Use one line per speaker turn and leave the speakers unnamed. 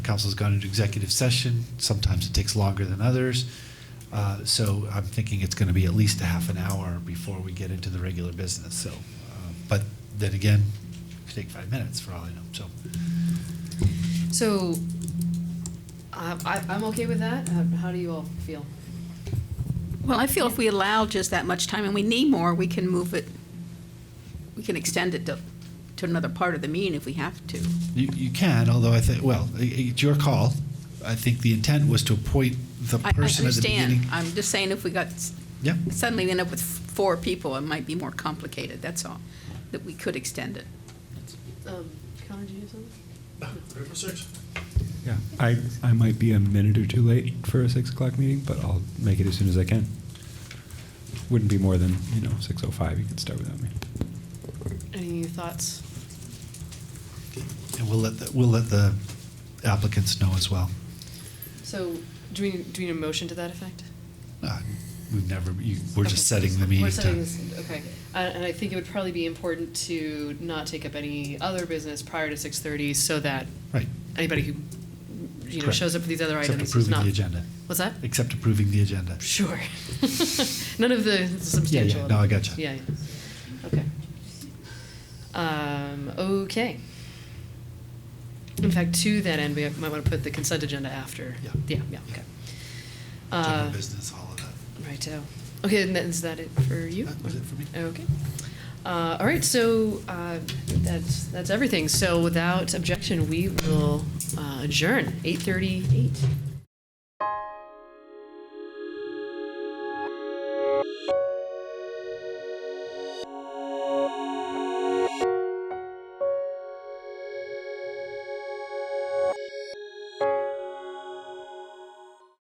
Council's gone into executive session. Sometimes it takes longer than others. Uh, So I'm thinking it's going to be at least a half an hour before we get into the regular business, so. uh, But then again, it could take five minutes for all I know, so.
So, I, I, I'm okay with that. Uh, How do you all feel?
Well, I feel if we allow just that much time and we need more, we can move it, we can extend it to, to another part of the meeting if we have to.
You, you can, although I think, well, i- i- it's your call. I think the intent was to appoint the
I, I
person at the
understand.
beginning.
I'm just saying if we got, s-
Yeah,
suddenly we end up with four people, it might be more complicated, that's all, that we could extend it.
Um, Connor, do you have something?
Yeah, I, I might be a minute or two late for a six o'clock meeting, but I'll make it as soon as I can. Wouldn't be more than, you know, six oh five, you can start without me.
Any thoughts?
and we'll let, the- we'll let the applicants know as well.
So, do we, do we need a motion to that effect?
Uh, We've never, you- we're just
Okay.
setting the meeting
We're
time.
setting this, okay. Uh, And I think it would probably be important to not take up any other business prior to six thirty so that
Right.
anybody who, you know,
Correct.
shows up for these other
Except
items is
approving
not.
the agenda.
What's that?
Except approving the agenda.
Sure. None of the substantial.
no, I gotcha.
Yeah, yeah. Okay. Um, okay. In fact, to that end, we might want to put the consent agenda after.
Yeah.
Yeah, yeah, okay.
General
Uh,
business, all of that.
righto. Okay, and then is that it for you?
That was it for me.
Okay. Uh, all right, so uh, that's that's everything. So without objection, we will uh, adjourn eight thirty-eight.